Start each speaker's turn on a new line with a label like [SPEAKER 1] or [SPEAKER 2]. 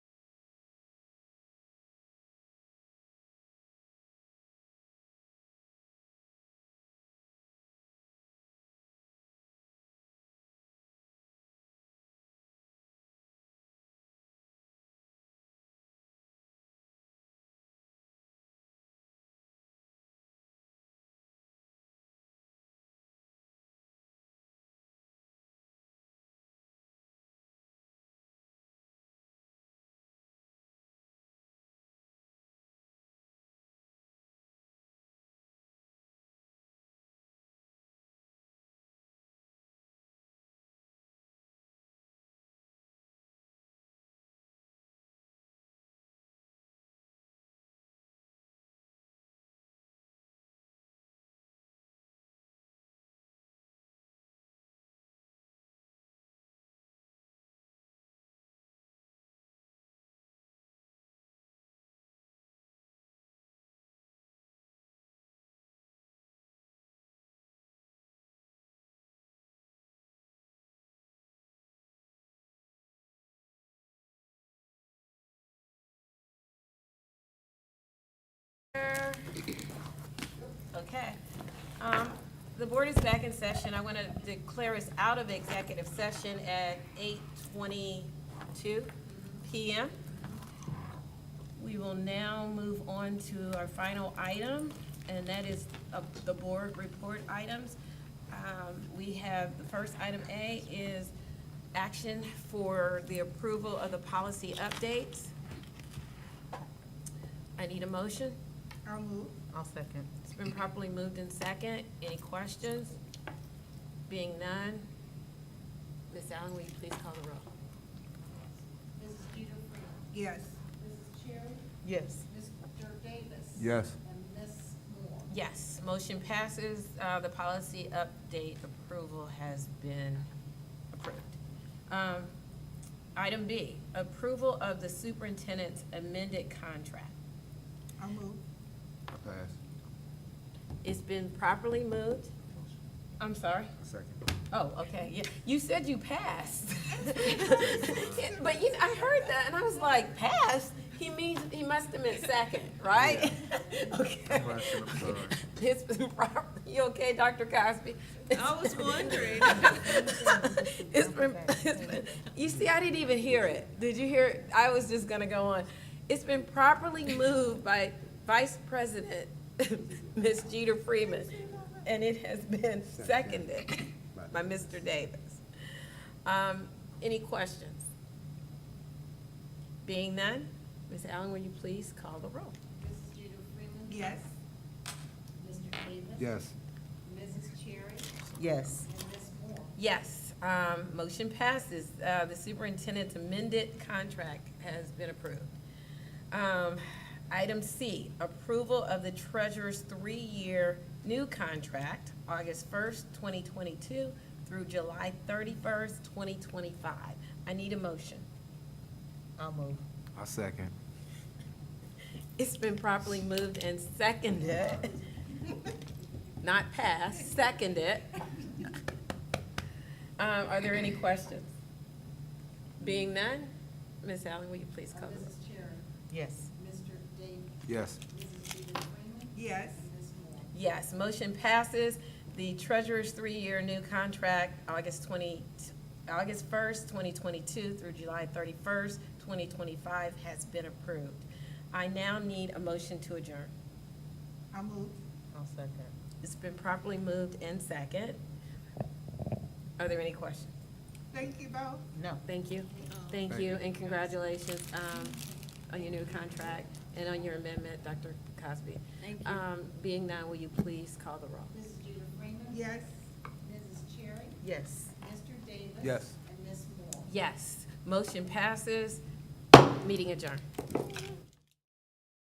[SPEAKER 1] Okay. Um, The board is back in session. I want to declare us out of executive session at 8:22 PM. We will now move on to our final item, and that is uh, the board report items. Um, We have, the first item A is action for the approval of the policy updates. I need a motion.
[SPEAKER 2] I'll move.
[SPEAKER 3] I'll second.
[SPEAKER 1] It's been properly moved in second. Any questions? Being none, Ms. Allen, will you please call the roll?
[SPEAKER 4] Mrs. Peter Freeman.
[SPEAKER 2] Yes.
[SPEAKER 4] Mrs. Cherry.
[SPEAKER 3] Yes.
[SPEAKER 4] Mr. Davis.
[SPEAKER 5] Yes.
[SPEAKER 4] And Ms. Moore.
[SPEAKER 1] Yes, motion passes. Uh, The policy update approval has been approved. Um, Item B, approval of the superintendent's amended contract.
[SPEAKER 2] I'll move.
[SPEAKER 5] Pass.
[SPEAKER 1] It's been properly moved. I'm sorry?
[SPEAKER 5] Second.
[SPEAKER 1] Oh, okay, yeah, you said you passed. But you, I heard that, and I was like, passed? He means, he must have meant second, right? Okay.
[SPEAKER 5] Right, I'm sorry.
[SPEAKER 1] It's been proper, you okay, Dr. Cosby?
[SPEAKER 2] I was wondering.
[SPEAKER 1] It's been, it's been, you see, I didn't even hear it. Did you hear, it? I was just gonna go on. It's been properly moved by Vice President, Ms. Jeter Freeman, and it has been seconded by Mr. Davis. Um, any questions? Being none, Ms. Allen, will you please call the roll?
[SPEAKER 4] Mrs. Peter Freeman.
[SPEAKER 2] Yes.
[SPEAKER 4] Mr. Davis.
[SPEAKER 5] Yes.
[SPEAKER 4] Mrs. Cherry.
[SPEAKER 3] Yes.
[SPEAKER 4] And Ms. Moore.
[SPEAKER 1] Yes, um, motion passes. Uh, the superintendent's amended contract has been approved. Um, item C, approval of the treasurer's three-year new contract, August first, twenty twenty-two through July thirty-first, twenty twenty-five. I need a motion.
[SPEAKER 3] I'll move.
[SPEAKER 5] I second.
[SPEAKER 1] It's been properly moved and seconded. Not passed, seconded. Um, are there any questions? Being none, Ms. Allen, will you please
[SPEAKER 4] Uh,
[SPEAKER 1] call the roll?
[SPEAKER 4] Mrs. Cherry.
[SPEAKER 3] Yes.
[SPEAKER 4] Mr. Davis.
[SPEAKER 5] Yes.
[SPEAKER 4] Mrs. Peter Freeman.
[SPEAKER 2] Yes.
[SPEAKER 4] And Ms. Moore.
[SPEAKER 1] Yes, motion passes. The treasurer's three-year new contract, August twenty, August first, twenty twenty-two through July thirty-first, twenty twenty-five has been approved. I now need a motion to adjourn.
[SPEAKER 2] I'll move.
[SPEAKER 3] I'll second.
[SPEAKER 1] It's been properly moved and second. Are there any questions?
[SPEAKER 2] Thank you both.
[SPEAKER 3] No.
[SPEAKER 1] Thank you. Thank
[SPEAKER 5] Thank
[SPEAKER 1] you,
[SPEAKER 5] you.
[SPEAKER 1] and congratulations um, on your new contract and on your amendment, Dr. Cosby.
[SPEAKER 4] Thank
[SPEAKER 1] Um, Being none, will you please call the roll?
[SPEAKER 4] Mrs. Peter Freeman.
[SPEAKER 2] Yes.
[SPEAKER 4] Mrs. Cherry.
[SPEAKER 3] Yes.
[SPEAKER 4] Mr. Davis.
[SPEAKER 5] Yes.
[SPEAKER 4] And Ms. Moore.
[SPEAKER 1] Yes, motion passes. Meeting adjourned.